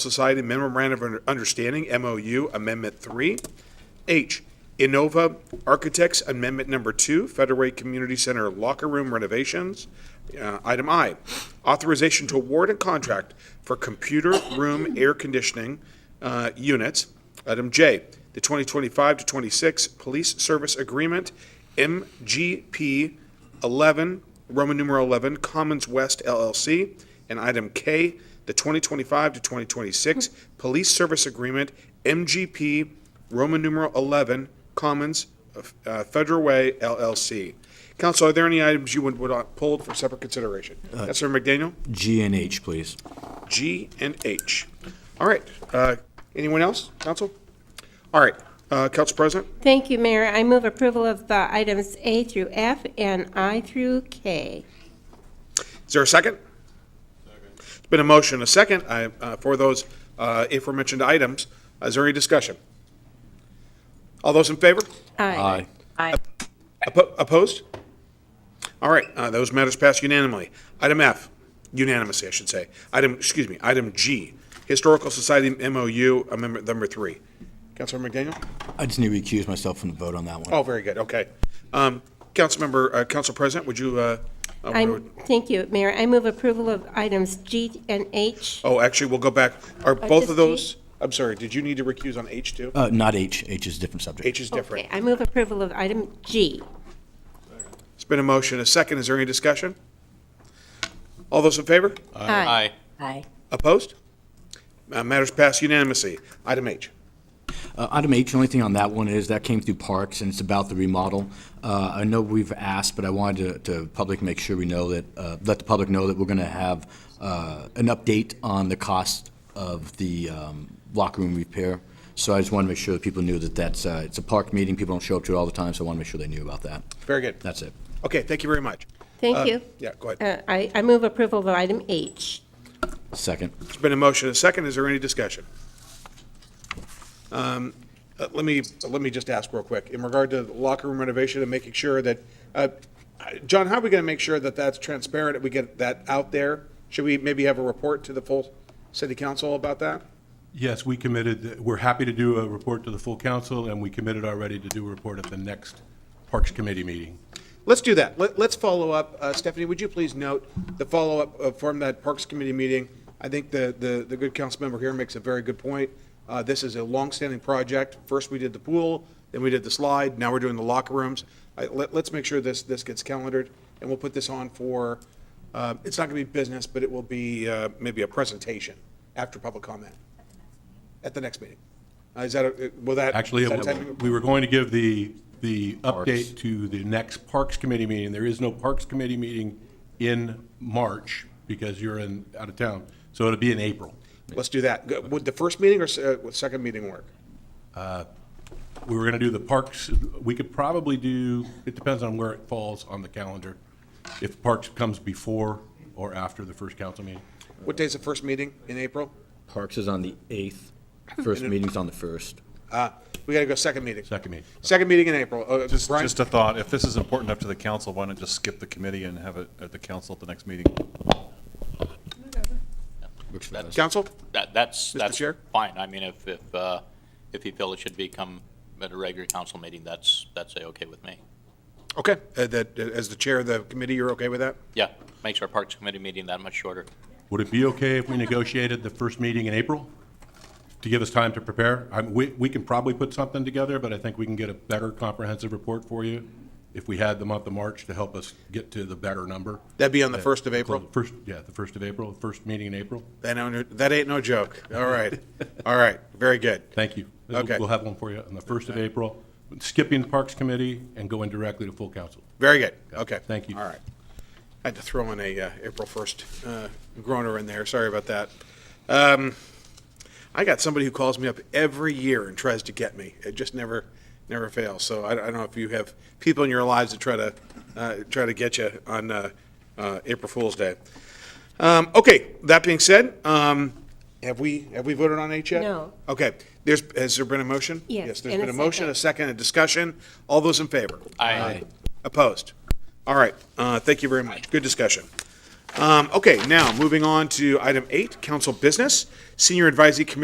Society Memorandum of Understanding, MOU, Amendment 3. H, Innova Architects Amendment Number 2, Federal Way Community Center Locker Room Renovations. Uh, Item I, Authorization to award a contract for computer room air conditioning uh, units. Item J, the 2025 to 26 Police Service Agreement, MGP 11, Roman numeral 11, Commons West LLC. And item K, the 2025 to 2026 Police Service Agreement, MGP Roman numeral 11, Commons uh, Federal Way LLC. Council, are there any items you would, would uh, pulled for separate consideration? Councilor McDaniel, G and H, please. G and H. All right, uh, anyone else, council? All right, uh, Council President? Thank you, Mayor. I move approval of the items A through F and I through K. Is there a second? It's been a motion, a second, I, uh, for those, uh, aforementioned items. Is there any discussion? All those in favor? Aye. Oppo- Opposed? All right, uh, those matters pass unanimously. Item F, unanimously, I should say. Item, excuse me, item G, Historical Society MOU, Amendment Number Three. Councilmember McDaniel? I just need to recuse myself from the vote on that one. Oh, very good, okay. Um, Councilmember, uh, Council President, would you, uh, uh, I, thank you, Mayor. I move approval of items G and H. oh, actually, we'll go back. Are both just Oh. of those, I'm sorry, did you need to recuse on H too? Uh, not H. H is a different subject. H is different. Okay, I move approval of item G. It's been a motion, a second. Is there any discussion? All those in favor? Aye. Aye. Opposed? Uh, Matters passed unanimously. Item H. Uh, Item H, the only thing on that one is that came through Parks, and it's about the remodel. Uh, I know we've asked, but I wanted to, to public make sure we know that, uh, let the public know that we're going to have uh, an update on the cost of the um, locker room repair. So I just want to make sure that people knew that that's, uh, it's a park meeting, people don't show up to it all the time, so I want to make sure they knew about that. Very good. That's it. Okay, thank you very much. Thank you. Yeah, go ahead. Uh, I, I move approval of item H. Second. It's been a motion, a second. Is there any discussion? Um, uh, Let me, let me just ask real quick, in regard to the locker room renovation and making sure that, uh, uh, John, how are we going to make sure that that's transparent, that we get that out there? Should we maybe have a report to the full city council about that? Yes, we committed, we're happy to do a report to the full council, and we committed already to do a report at the next Parks Committee meeting. Let's do that. Let, let's follow up. Uh, Stephanie, would you please note the follow-up uh, from that Parks Committee meeting? I think the, the, the good council member here makes a very good point. Uh, this is a longstanding project. First, we did the pool, then we did the slide, now we're doing the locker rooms. I, let, let's make sure this, this gets calendared, and we'll put this on for, uh, it's not gonna be business, but it will be, uh, maybe a presentation after public comment. At the next meeting. Uh, is that, a- will that? Actually, is that it- timing- we were going to give the, the Parks. update to the next Parks Committee meeting. There is no Parks Committee meeting in March because you're in, out of town, so it'll be in April. Let's do that. Go- Would the first meeting or s- uh, would second meeting work? We were going to do the Parks, we could probably do, it depends on where it falls on the calendar, if Parks comes before or after the first council meeting. What day's the first meeting in April? Parks is on the 8th, first meeting's on the 1st. We gotta go second meeting. Second meeting. Second meeting in April. Uh, Just, Brian? just a thought, if this is important enough to the council, why not just skip the committee and have it at the council at the next meeting? Works for us. Council? That, that's, that's Chair? fine. I mean, if, if, uh, if you feel it should become at a regular council meeting, that's, that's a-okay with me. Okay, uh, that, uh, as the chair of the committee, you're okay with that? Yeah, makes our Parks Committee meeting that much shorter. Would it be okay if we negotiated the first meeting in April to give us time to prepare? I, we, we can probably put something together, but I think we can get a better comprehensive report for you if we had the month of March to help us get to the better number. That'd be on the first of April? First, yeah, the first of April, first meeting in April. That ain't, that ain't no joke. All right, all right, very good. Thank you. Okay. We'll have one for you on the first of April, skipping the Parks Committee and going directly to full council. Very good, okay. Thank you. All right. I had to throw in a uh, April 1st uh, groaner in there, sorry about that. Um, I got somebody who calls me up every year and tries to get me. It just never, never fails. So I I don't know if you have people in your lives that try to, uh, try to get you on uh, uh, April Fool's Day. Um, Okay, that being said, um, have we, have we voted on H yet? No. Okay, there's, has there been a motion? Yes, there's and a been a motion, second. a second, a discussion. All those in favor? I, Opposed? All right, uh, thank you very much. Good discussion. Um, okay, now, moving on to item eight, council business. Senior Advisory Committee